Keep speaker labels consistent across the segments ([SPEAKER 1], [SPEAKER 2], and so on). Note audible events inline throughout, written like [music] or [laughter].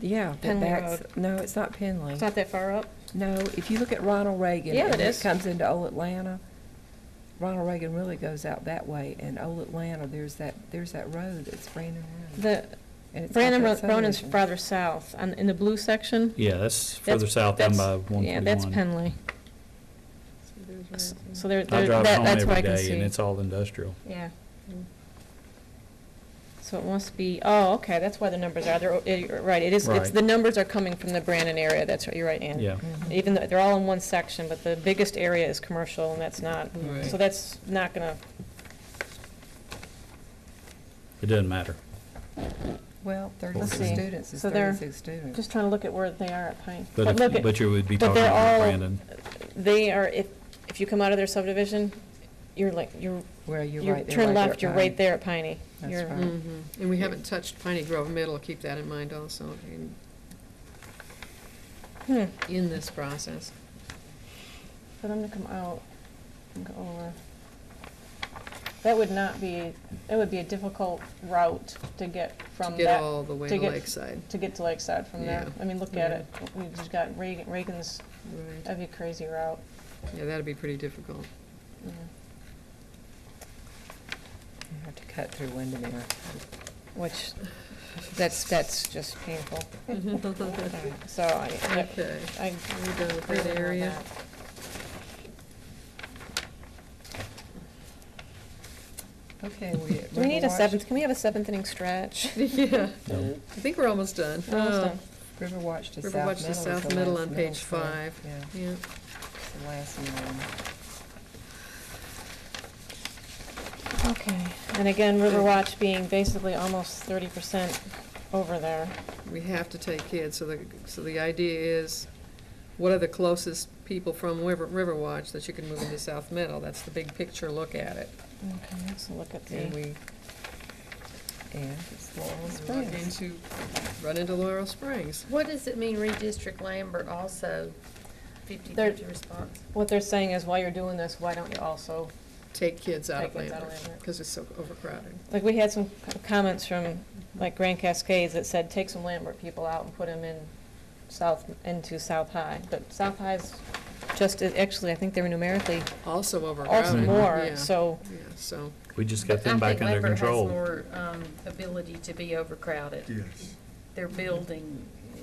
[SPEAKER 1] yeah,
[SPEAKER 2] Penley
[SPEAKER 1] that backs,
[SPEAKER 2] Road.
[SPEAKER 1] no, it's not Penley.
[SPEAKER 2] It's not that far up.
[SPEAKER 1] No, if you look at Ronald Reagan.
[SPEAKER 2] Yeah,
[SPEAKER 1] and
[SPEAKER 2] it is.
[SPEAKER 1] comes into Old Atlanta. Ronald Reagan really goes out that way, and Old Atlanta, there's that, there's that road, it's Brandon Road.
[SPEAKER 2] The,
[SPEAKER 1] and it's got
[SPEAKER 2] Brandon
[SPEAKER 1] that
[SPEAKER 2] Ro- Ronan's
[SPEAKER 1] subdivision.
[SPEAKER 2] farther south, on, in the blue section.
[SPEAKER 3] Yeah, that's
[SPEAKER 2] That's-
[SPEAKER 3] further south down by
[SPEAKER 2] that's-
[SPEAKER 3] one
[SPEAKER 2] Yeah, that's
[SPEAKER 3] twenty-one.
[SPEAKER 2] Penley. S- So there,
[SPEAKER 3] I
[SPEAKER 2] there- that,
[SPEAKER 3] drive home
[SPEAKER 2] that's where I
[SPEAKER 3] every
[SPEAKER 2] can
[SPEAKER 3] day and
[SPEAKER 2] see.
[SPEAKER 3] it's all industrial.
[SPEAKER 2] Yeah. So it must be, oh, okay, that's why the numbers are, they're, o- eh, you're right, it is, it's,
[SPEAKER 3] Right.
[SPEAKER 2] the numbers are coming from the Brandon area, that's right, you're right, Ann.
[SPEAKER 3] Yeah,
[SPEAKER 1] Mhm.
[SPEAKER 2] Even though, they're all in one section, but the biggest area is commercial, and that's not,
[SPEAKER 4] Right.
[SPEAKER 2] so that's not gonna,
[SPEAKER 3] it doesn't matter.
[SPEAKER 1] Well,
[SPEAKER 3] Let's
[SPEAKER 1] thirty-six
[SPEAKER 2] see.
[SPEAKER 1] students is
[SPEAKER 2] So they're-
[SPEAKER 1] thirty-six students.
[SPEAKER 2] just trying to look at where they are at Pine.
[SPEAKER 3] But
[SPEAKER 2] look at-
[SPEAKER 3] if, but you would be
[SPEAKER 2] but
[SPEAKER 3] talking
[SPEAKER 2] they're
[SPEAKER 3] about
[SPEAKER 2] all-
[SPEAKER 3] Brandon.
[SPEAKER 2] They are, if, if you come out of their subdivision, you're like, you're,
[SPEAKER 1] Where you're
[SPEAKER 2] you
[SPEAKER 1] right there,
[SPEAKER 2] turn
[SPEAKER 1] right there
[SPEAKER 2] left,
[SPEAKER 1] at
[SPEAKER 2] you're right
[SPEAKER 1] Pine.
[SPEAKER 2] there at Piney.
[SPEAKER 1] That's
[SPEAKER 2] You're-
[SPEAKER 1] right.
[SPEAKER 4] Mhm. And we haven't touched Piney Grove Middle, keep that in mind also, in,
[SPEAKER 2] Hmm,
[SPEAKER 4] in this process.
[SPEAKER 2] for them to come out and go over. That would not be, that would be a difficult route to get
[SPEAKER 4] To
[SPEAKER 2] from
[SPEAKER 4] get
[SPEAKER 2] that,
[SPEAKER 4] all the way
[SPEAKER 2] to
[SPEAKER 4] to
[SPEAKER 2] get-
[SPEAKER 4] Lakeside,
[SPEAKER 2] to get to Lakeside from there.
[SPEAKER 4] Yeah.
[SPEAKER 2] I mean, look at it, we've just got Reagan, Reagan's,
[SPEAKER 4] right,
[SPEAKER 2] that'd be a crazy route.
[SPEAKER 4] yeah, that'd be pretty difficult.
[SPEAKER 2] Yeah.
[SPEAKER 1] You have to cut through Windermere.
[SPEAKER 2] Which, that's, that's just
[SPEAKER 4] [laughs]
[SPEAKER 2] painful. [laughs]
[SPEAKER 4] Okay,
[SPEAKER 2] So I, I
[SPEAKER 4] are we done with
[SPEAKER 2] agree with
[SPEAKER 4] that
[SPEAKER 2] you on
[SPEAKER 4] area?
[SPEAKER 2] that.
[SPEAKER 1] Okay, we.
[SPEAKER 2] Do [laughs] we need a
[SPEAKER 1] Riverwatch-
[SPEAKER 2] seventh, can we have a seventh inning stretch?
[SPEAKER 4] [laughs] Yeah,
[SPEAKER 3] No.
[SPEAKER 4] I think we're almost done.
[SPEAKER 2] We're almost
[SPEAKER 4] Oh,
[SPEAKER 2] done.
[SPEAKER 1] Riverwatch to South Middle.
[SPEAKER 4] Riverwatch to
[SPEAKER 1] is
[SPEAKER 4] South
[SPEAKER 1] the
[SPEAKER 4] Middle
[SPEAKER 1] last
[SPEAKER 4] on page
[SPEAKER 1] school.
[SPEAKER 4] five.
[SPEAKER 1] Yeah,
[SPEAKER 4] Oh. Yeah,
[SPEAKER 1] it's the last one.
[SPEAKER 2] [laughs] Okay, and again, Riverwatch being basically almost thirty percent over there.
[SPEAKER 4] we have to take kids, so the, so the idea is, what are the closest people from River, Riverwatch that you can move into South Middle? That's the big picture look at it,
[SPEAKER 2] Okay, let's look at
[SPEAKER 4] and
[SPEAKER 2] the,
[SPEAKER 4] we
[SPEAKER 1] And it's Laurel
[SPEAKER 4] run
[SPEAKER 1] Springs.
[SPEAKER 4] into, run into Laurel Springs.
[SPEAKER 5] What does it mean redistrict Lambert also
[SPEAKER 2] There-
[SPEAKER 5] fifty-fifty response?
[SPEAKER 2] what they're saying is while you're doing this, why don't you also,
[SPEAKER 4] take kids out
[SPEAKER 2] Take
[SPEAKER 4] of
[SPEAKER 2] kids out of
[SPEAKER 4] Lambert,
[SPEAKER 2] Lambert.
[SPEAKER 4] because it's so overcrowded.
[SPEAKER 2] like, we had some c- comments from, like, Grand Cascades that said, take some Lambert people out and put them in South, into South High, but South High's just, actually, I think they were numerically
[SPEAKER 4] Also
[SPEAKER 2] also
[SPEAKER 4] overcrowded.
[SPEAKER 2] more,
[SPEAKER 4] yeah,
[SPEAKER 2] so,
[SPEAKER 4] Yeah, so,
[SPEAKER 3] We just got them back under control.
[SPEAKER 5] I think Lambert has more, um, ability to be overcrowded.
[SPEAKER 6] Yes.
[SPEAKER 5] Their building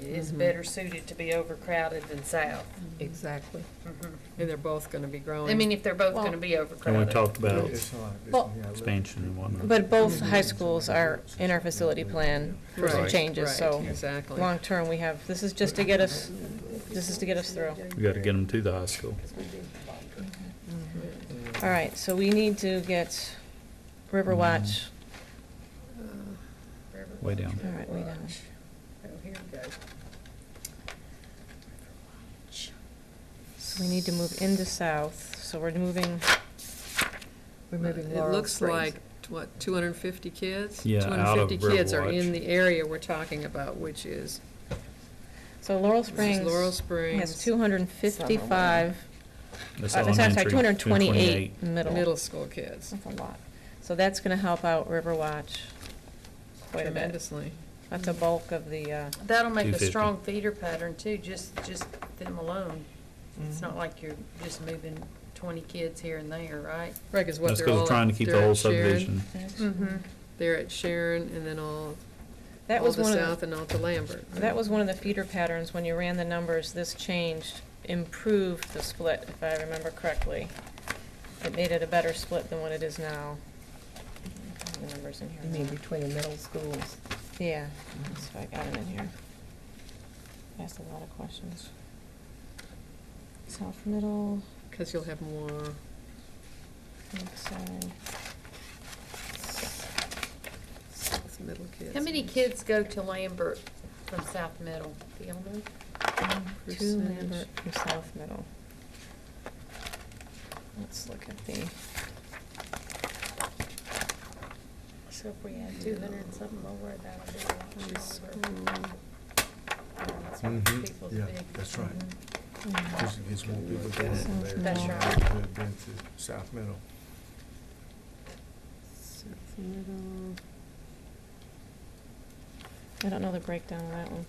[SPEAKER 5] is
[SPEAKER 2] Mm-hmm.
[SPEAKER 4] Mhm.
[SPEAKER 5] better suited to be overcrowded than South.
[SPEAKER 4] exactly.
[SPEAKER 5] Mhm.
[SPEAKER 4] And they're both gonna be growing.
[SPEAKER 5] I mean, if they're both
[SPEAKER 2] Mm-hmm. Well-
[SPEAKER 5] gonna be
[SPEAKER 3] And we
[SPEAKER 5] overcrowded.
[SPEAKER 3] talked about
[SPEAKER 6] It's not- it's-
[SPEAKER 2] Well-
[SPEAKER 6] yeah,
[SPEAKER 3] expansion and whatnot.
[SPEAKER 2] but both high schools are in our facility plan for some
[SPEAKER 4] Right,
[SPEAKER 2] changes,
[SPEAKER 4] right,
[SPEAKER 2] so,
[SPEAKER 4] Exactly.
[SPEAKER 2] long-term, we have, this is just to get us, this is to get us through.
[SPEAKER 3] We gotta get them to the high school.
[SPEAKER 2] All right, so we need to get
[SPEAKER 4] Mm-hmm.
[SPEAKER 2] Riverwatch.
[SPEAKER 3] Way down.
[SPEAKER 2] All right, we know.
[SPEAKER 5] Oh, here we go.
[SPEAKER 2] So we need to move into south, so we're moving,
[SPEAKER 1] We're moving
[SPEAKER 4] It
[SPEAKER 1] Laurel
[SPEAKER 4] looks
[SPEAKER 1] Springs.
[SPEAKER 4] like, what, two hundred and fifty kids?
[SPEAKER 3] Yeah, out of
[SPEAKER 4] 250 kids are in
[SPEAKER 3] Riverwatch.
[SPEAKER 4] the area we're talking about, which is,
[SPEAKER 2] so Laurel
[SPEAKER 4] this is Laurel
[SPEAKER 2] Springs
[SPEAKER 4] Springs
[SPEAKER 2] has two hundred and fifty-five,
[SPEAKER 3] That's
[SPEAKER 2] sorry, sorry,
[SPEAKER 3] elementary,
[SPEAKER 2] two hundred and twenty-eight
[SPEAKER 3] 228.
[SPEAKER 2] middle.
[SPEAKER 4] middle school kids
[SPEAKER 2] That's a lot. So that's gonna help out Riverwatch quite a bit.
[SPEAKER 4] tremendously.
[SPEAKER 2] That's a bulk of the, uh,
[SPEAKER 5] That'll make a
[SPEAKER 3] 250.
[SPEAKER 5] strong feeder pattern too, just, just them alone. It's
[SPEAKER 2] Mm-hmm.
[SPEAKER 5] not like you're just moving twenty kids here and there, right?
[SPEAKER 4] Right, 'cause what
[SPEAKER 3] That's
[SPEAKER 4] they're
[SPEAKER 3] because
[SPEAKER 4] all.
[SPEAKER 3] we're
[SPEAKER 4] at-
[SPEAKER 3] trying to keep the
[SPEAKER 4] they're at
[SPEAKER 3] whole
[SPEAKER 4] Sharon,
[SPEAKER 3] subdivision.
[SPEAKER 5] Mm-hmm.
[SPEAKER 4] They're at Sharon and then all,
[SPEAKER 2] that
[SPEAKER 4] all
[SPEAKER 2] was
[SPEAKER 4] the
[SPEAKER 2] one of the.
[SPEAKER 4] south and all to Lambert.
[SPEAKER 2] That was one of the feeder patterns, when you ran the numbers, this changed, improved the split, if I remember correctly. It made it a better split than what it is now. I have The numbers in
[SPEAKER 1] You mean
[SPEAKER 2] here.
[SPEAKER 1] between the middle schools?
[SPEAKER 2] Yeah, that's why I got them in here. Asked a lot of questions. South middle,
[SPEAKER 4] Because you'll have more.
[SPEAKER 2] north side.
[SPEAKER 4] South Middle kids.
[SPEAKER 5] How many kids go to Lambert from South Middle? Do y'all know?
[SPEAKER 2] Two
[SPEAKER 4] Percentage.
[SPEAKER 2] Lambert from South Middle. Let's look at the,
[SPEAKER 5] So if we add two hundred and something over, that'll be a lot smaller. That's what
[SPEAKER 6] Mhm.
[SPEAKER 5] people
[SPEAKER 6] Yeah,
[SPEAKER 5] think.
[SPEAKER 6] that's right.
[SPEAKER 5] Mhm.
[SPEAKER 6] Just gets more people going from there.
[SPEAKER 2] That's
[SPEAKER 5] right.
[SPEAKER 6] Than it been to South Middle.
[SPEAKER 4] South Middle.
[SPEAKER 2] I don't know the breakdown of that one.